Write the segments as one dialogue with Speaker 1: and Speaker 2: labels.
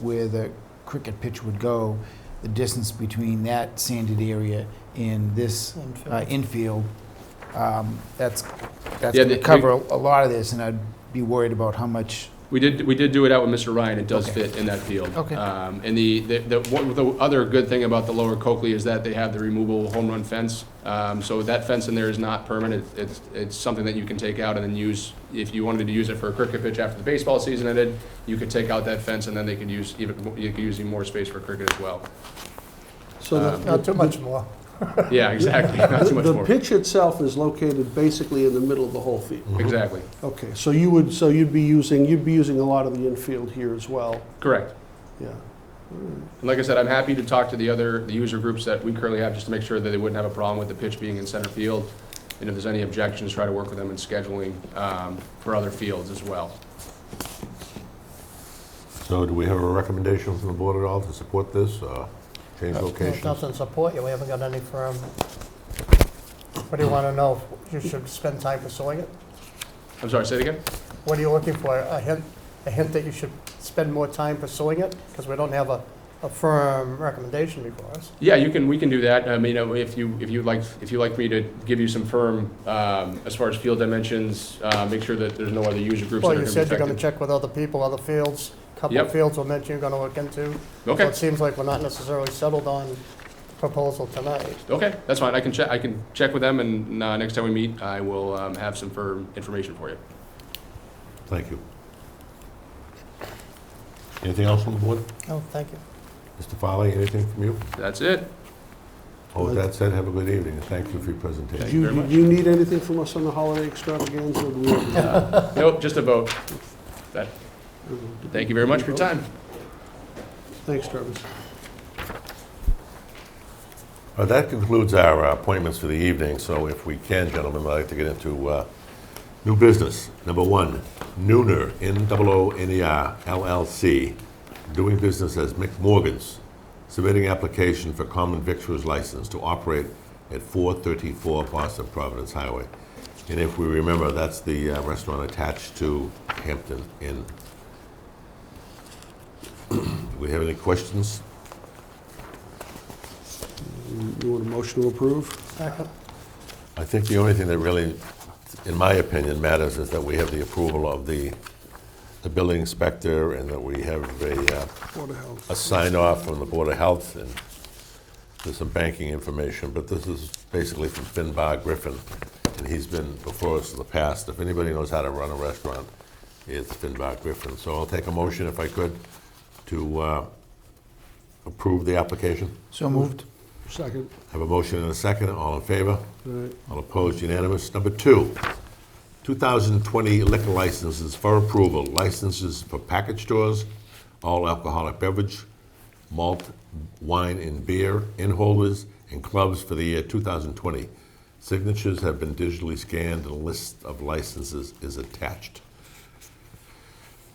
Speaker 1: where the cricket pitch would go, the distance between that sanded area and this uh, infield, um, that's, that's
Speaker 2: Yeah,
Speaker 1: going to
Speaker 2: the-
Speaker 1: cover a lot of this, and I'd be worried about how much,
Speaker 2: We did, we did do it out with Mr. Ryan, it does
Speaker 1: Okay.
Speaker 2: fit in that field.
Speaker 1: Okay.
Speaker 2: Um, And the, the, the one- the other good thing about the lower Coakley is that they have the removable home run fence. Um, So that fence in there is not permanent, it's, it's something that you can take out and then use, if you wanted to use it for a cricket pitch after the baseball season ended, you could take out that fence and then they could use, even, mo- you could use even more space for cricket as well.
Speaker 3: So the-
Speaker 2: Um,
Speaker 4: Not too much more.
Speaker 2: Yeah, exactly, not too much
Speaker 3: The the
Speaker 2: more.
Speaker 3: pitch itself is located basically in the middle of the whole field.
Speaker 2: Exactly,
Speaker 3: Okay, so you would, so you'd be using, you'd be using a lot of the infield here as well,
Speaker 2: correct.
Speaker 3: yeah.
Speaker 2: And like I said, I'm happy to talk to the other, the user groups that we currently have, just to make sure that they wouldn't have a problem with the pitch being in center field. And if there's any objections, try to work with them in scheduling um, for other fields as well.
Speaker 5: So do we have a recommendation from the board at all to support this, uh, change
Speaker 4: There's
Speaker 5: locations?
Speaker 4: nothing to support you, we haven't got any firm. What do you want to know? You should spend time pursuing it?
Speaker 2: I'm sorry, say it again?
Speaker 4: What are you looking for? A hint, a hint that you should spend more time pursuing it? Because we don't have a, a firm recommendation before us.
Speaker 2: Yeah, you can, we can do that. I mean, uh, if you, if you'd like, if you'd like me to give you some firm, um, as far as field dimensions, uh, make sure that there's no other user groups that
Speaker 4: Well,
Speaker 2: are going
Speaker 4: you
Speaker 2: to be
Speaker 4: said you're going to
Speaker 2: affected.
Speaker 4: check with other people, other fields, couple
Speaker 2: Yep.
Speaker 4: of fields were mentioned you're going to look into. So
Speaker 2: Okay,
Speaker 4: it seems like we're not necessarily settled on proposal tonight.
Speaker 2: okay, that's fine. I can check, I can check with them, and uh, next time we meet, I will um, have some firm information for you.
Speaker 5: Thank you. Anything else on the board?
Speaker 4: Oh, thank you.
Speaker 5: Mr. Farley, anything from you?
Speaker 2: That's it.
Speaker 5: Oh, with that said, have a good evening, and thank you for your presentation.
Speaker 2: Thank
Speaker 3: Do
Speaker 2: you
Speaker 3: you,
Speaker 2: very much.
Speaker 3: do you need anything from us on the holiday extravaganza? Do we-
Speaker 2: Nope, just a vote. That- Thank you very much for your time.
Speaker 3: Thanks, Travis.
Speaker 5: Uh, That concludes our uh, appointments for the evening, so if we can, gentlemen, I'd like to get into uh, new business. Number one, Nooner, N-O-O-N-E-R LLC, doing business as Mick Morgan's, submitting application for common victuals license to operate at 434 Boston Providence Highway. And if we remember, that's the uh, restaurant attached to Hampton Inn. Do we have any questions?
Speaker 3: You want a motion to approve?
Speaker 4: Second.
Speaker 5: I think the only thing that really, in my opinion, matters is that we have the approval of the, the building inspector and that we have a, uh,
Speaker 3: Board of Health.
Speaker 5: a sign off from the Board of Health and there's some banking information, but this is basically from Finbar Griffin. And he's been before us in the past. If anybody knows how to run a restaurant, it's Finbar Griffin. So I'll take a motion if I could to, uh, approve the application.
Speaker 1: so moved.
Speaker 3: Second.
Speaker 5: Have a motion and a second. All in favor?
Speaker 3: All right.
Speaker 5: All opposed, unanimous. Number two, 2020 liquor licenses for approval. Licenses for package stores, all alcoholic beverage, malt, wine, and beer, in holders, and clubs for the year 2020. Signatures have been digitally scanned, and a list of licenses is attached.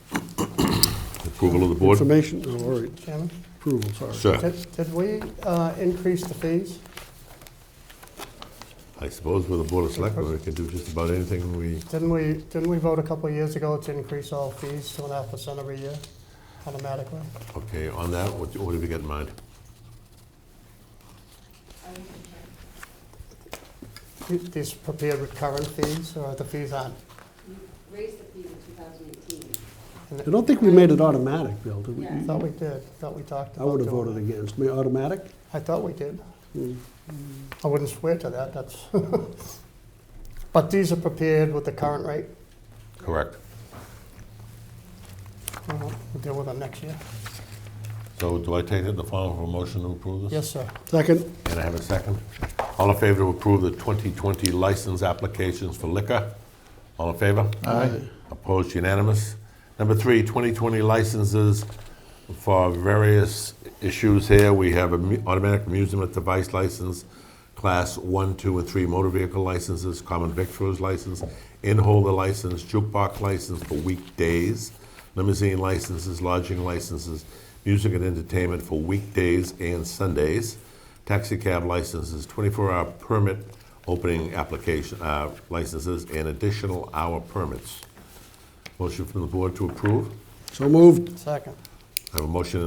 Speaker 5: Approval of the board?
Speaker 3: Information, oh, all right,
Speaker 4: Chairman,
Speaker 3: approval, sorry.
Speaker 5: Sir,
Speaker 4: did, did we uh, increase the fees?
Speaker 5: I suppose with the Board of Selectmen, we can do just about anything we
Speaker 4: Didn't we, didn't we vote a couple of years ago to increase all fees two and a half percent every year automatically?
Speaker 5: Okay, on that, what what have you got in mind?
Speaker 4: These prepared with current fees or the fees on?
Speaker 6: raised the fee in 2018.
Speaker 3: I don't think we made it automatic, Bill, did we?
Speaker 6: Yeah.
Speaker 4: Thought we did, thought we talked
Speaker 3: I
Speaker 4: about
Speaker 3: would have
Speaker 4: doing
Speaker 3: voted
Speaker 4: that.
Speaker 3: against. Ma- Automatic?
Speaker 4: I thought we did.
Speaker 3: Mm.
Speaker 4: I wouldn't swear to that, that's. But these are prepared with the current rate.
Speaker 5: Correct.
Speaker 4: Uh, We'll deal with them next year.
Speaker 5: So do I take it in the form of a motion to approve this?
Speaker 4: Yes, sir.
Speaker 3: Second,
Speaker 5: And I have a second. All in favor to approve the 2020 license applications for liquor? All in favor? Aye. Opposed, unanimous. Number three, 2020 licenses for various issues here. We have a mu- automatic amusement device license, class one, two, and three motor vehicle licenses, common victuals license, in-holder license, jukebox license for weekdays, limousine licenses, lodging licenses, music and entertainment for weekdays and Sundays, taxi cab licenses, 24-hour permit opening application, uh, licenses, and additional hour permits. Motion from the board to approve?
Speaker 3: so moved.
Speaker 4: Second.
Speaker 5: I have a motion